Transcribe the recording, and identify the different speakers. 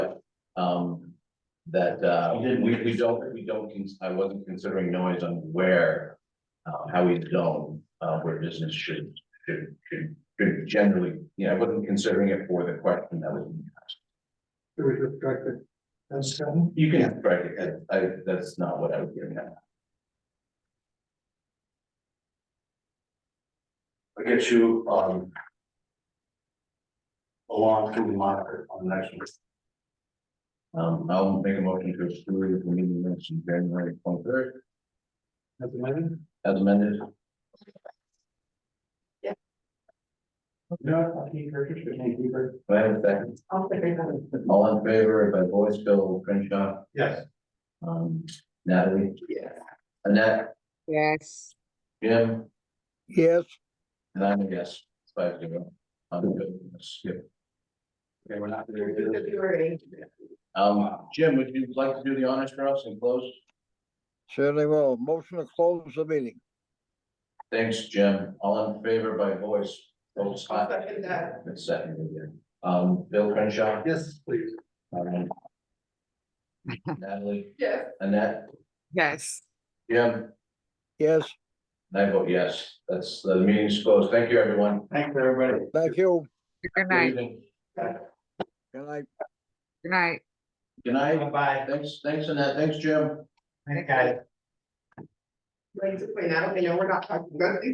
Speaker 1: Um, that, uh, we, we don't, we don't, cons- I wasn't considering noise on where, uh, how we zone, uh, where business should, should, should, should generally, you know, I wasn't considering it for the question that was. being asked.
Speaker 2: It was restricted. That's seven.
Speaker 1: You can, strike it. I, I, that's not what I was getting at.
Speaker 3: I'll get you, um. Along to the monitor on the next one.
Speaker 1: Um, I'll make a motion to exclude the meeting minutes from January twenty-third
Speaker 2: That's eleven.
Speaker 1: as amended.
Speaker 2: No, I'll keep her, just can't keep her.
Speaker 1: Do I have a second?
Speaker 4: I'll figure that
Speaker 1: All in favor by voice, Bill Crenshaw,
Speaker 2: Yes.
Speaker 1: um, Natalie,
Speaker 4: out.
Speaker 1: Annette,
Speaker 5: yes.
Speaker 1: Jim,
Speaker 6: yes,
Speaker 1: and I'm a yes, five zero. I'm good with this. Yep.
Speaker 3: Okay, we're not. gonna do this.
Speaker 4: February.
Speaker 1: Um, Jim, would you like to do the honors for us and close?
Speaker 6: certainly will. Motion to close the meeting.
Speaker 1: Thanks, Jim. All in favor by voice, Bill
Speaker 4: I'll
Speaker 1: Scott,
Speaker 4: second that.
Speaker 1: it's second again. Um, Bill Crenshaw,
Speaker 2: Yes, please.
Speaker 1: um, Natalie,
Speaker 4: Yes.
Speaker 1: Annette,
Speaker 5: Yes.
Speaker 1: Jim,
Speaker 6: Yes,
Speaker 1: and I vote yes. That's, the meeting's closed. Thank you, everyone.
Speaker 3: Thanks, everybody.
Speaker 6: thank you.
Speaker 5: Good
Speaker 1: Good
Speaker 5: night,
Speaker 1: evening.
Speaker 6: Good night.
Speaker 5: good night.
Speaker 1: Good night.
Speaker 3: Bye.
Speaker 1: Thanks, thanks, Annette. Thanks, Jim.
Speaker 3: Thanks, guys.
Speaker 4: Like to point out, you know, we're not talking about